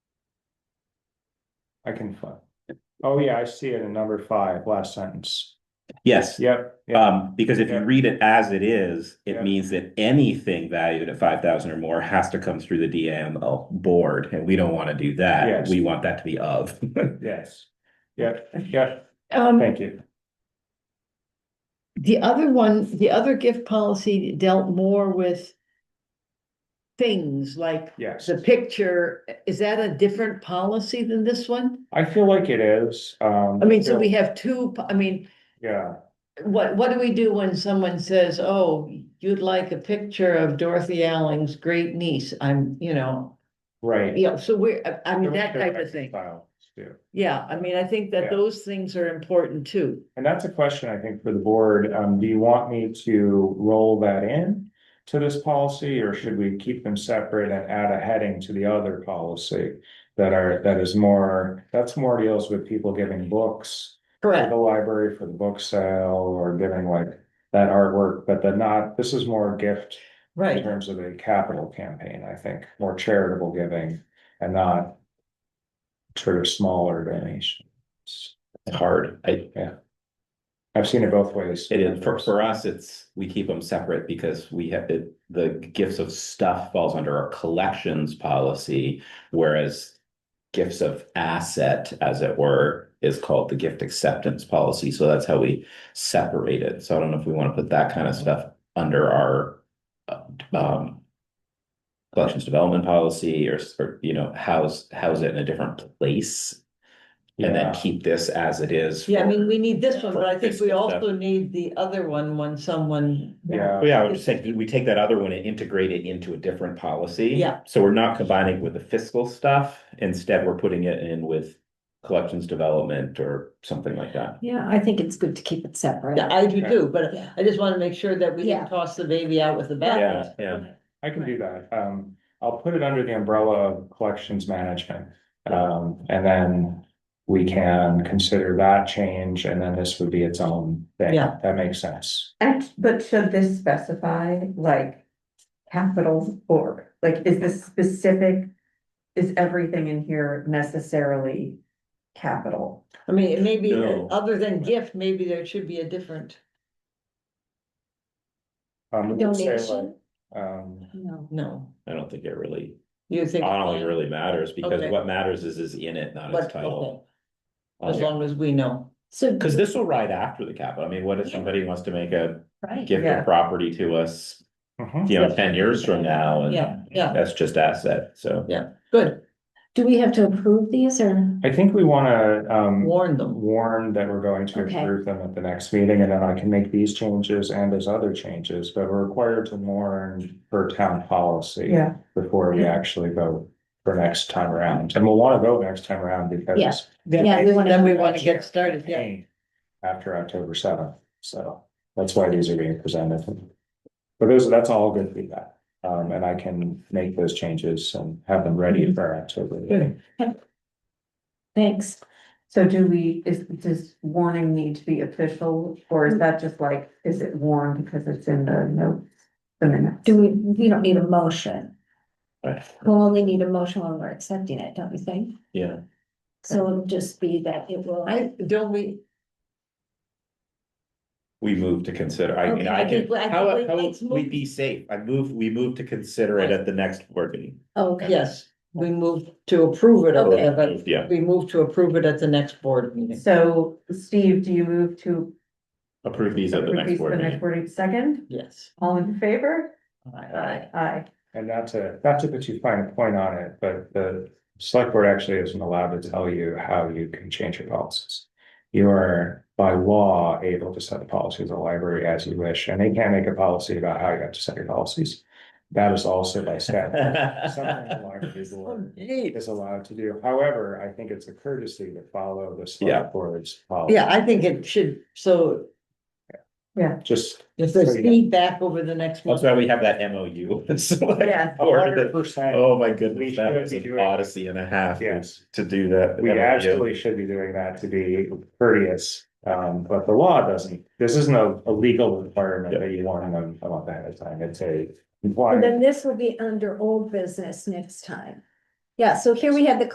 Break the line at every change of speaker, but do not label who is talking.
I can find. Oh, yeah, I see it in number five, last sentence.
Yes,
Yep. yeah.
um, because if you
Yeah.
read it as it is,
Yeah.
it means that anything valued at five thousand or more has to come through the DML board, and we don't want to do that.
Yes.
We want that to be of.
Yes. Yep, yep,
Um,
thank you.
the other one, the other gift policy dealt more with things like
Yes.
the picture. Is that a different policy than this one?
I feel like it is, um.
I mean, so
yeah,
we have two, po- I mean,
Yeah,
what, what do we do when someone says, oh, you'd like a picture of Dorothy Alling's great niece? I'm, you know,
right.
you know, so we're, I- I mean, that type of thing.
Files, too.
Yeah, I mean, I think
Yeah.
that those things are important too.
And that's a question, I think, for the board. Um, do you want me to roll that in to this policy, or should we keep them separate and add a heading to the other policy? That are, that is more, that's more deals with people giving books to
Correct.
the library for the book sale or giving like that artwork, but then not, this is more a gift in
Right.
terms of a capital campaign, I think, more charitable giving and not sort of smaller donations.
It's Hard. I,
I've seen it both ways.
It is, for, for us, it's, we keep them separate because we have, it- the gifts of stuff falls under our collections policy, whereas gifts of asset, as it were, is called the gift acceptance policy, so that's how we separate it, so I don't know if we want to put that kind of stuff under our uh, um collections development policy or, s- or, you know, house, house it in a different place and then
Yeah.
keep this as it is.
Yeah, I
for-
mean, we need this one, but I think
Breakfast
we
and stuff.
also need the other one when someone.
Yeah,
Well, Oh, Yeah, I would say we take that other one and integrate it into a different policy.
Yeah.
So we're not combining it with the fiscal stuff. Instead, we're putting it in with collections development or something like that.
Yeah, I think it's good to keep it separate.
Yeah, I do
Okay.
too, but
Yeah.
I just wanna make sure that we
Yeah.
didn't toss the baby out with the bathwater.
yeah.
I can do that. Um, I'll put it under the umbrella of collections management. Um, and then we can consider that change and then this would be its own thing.
Yeah.
That makes sense.
Act, but should this specify like capitals or, like, is this specific? Is everything in here necessarily capital?
I mean, it may be,
No.
other than gift, maybe there should be a different,
Um, we could say, like,
Donation?
Um,
No.
no,
I don't think it really,
you
I
think.
don't think it really matters because
Okay.
what matters is is in it, not its
But,
title.
okay, as long as we know,
So,
Because this will ride after the capital. I mean, what if somebody wants to make a
right,
gift
Yeah.
of property to us,
mhm.
you know, ten years from now? and
yeah, yeah,
That's just asset, so.
good,
do we have to approve these or?
I think we wanna, um.
warn them,
warn that we're going to
Okay.
approve them at the next meeting, and then I can make these changes and there's other changes, but we're required to warn for town policy.
Yeah.
Before we actually vote for next time around, and we'll wanna vote next time around
Yeah.
because.
Yeah, we wanna
then we
have
wanna
that
get
here.
started, yeah.
After October seventh, so that's why these are being presented. But those, that's all good feedback, um, and I can make those changes and have them ready for October. meeting.
Thanks.
So do we, is, does warning need to be official, or is that just like, is it warned because it's in the notes? The minutes?
Do we, we don't need a motion.
Right.
We'll only need a motion when we're accepting it, don't you think?
Yeah.
So it'll just be that it will.
I, don't we,
We move to consider, I mean,
Okay,
I
I
can,
think- I
how,
think we-
how,
let's
we
move.
be safe, I move, we move to consider it at the next board meeting.
oh, Okay,
yes, we moved to approve it,
Okay.
over, but
Yeah,
we moved to approve it at the next board meeting.
So Steve, do you move to
approve these at the next
release the
board
next
meeting.
word second?
Yes.
All in favor?
Alright.
Aye.
And not to, not to put too fine a point on it, but the select board actually isn't allowed to tell you how you can change your policies. You are by law able to set the policy of the library as you wish, and they can't make a policy about how you have to set your policies. That is also by statute. Something the library board is allowed to do. However, I think it's a courtesy to follow the
Yeah.
select board's policy.
Yeah, I think it should, so
Just
if there's
So, yeah.
feedback over the next
That's
month.
why we have that MOU. with select
Yeah.
board
hundred
that-
percent,
Oh my
We
goodness, that
should
was
be
an
doing-
odyssey and a half
yes.
to do that.
We
MOU.
actually should be doing that to be courteous, um, but the law doesn't, this isn't a, a legal requirement that you want to know about that at time, it's a.
and
compliance.
then this will be under old business next time. Yeah, so here we have the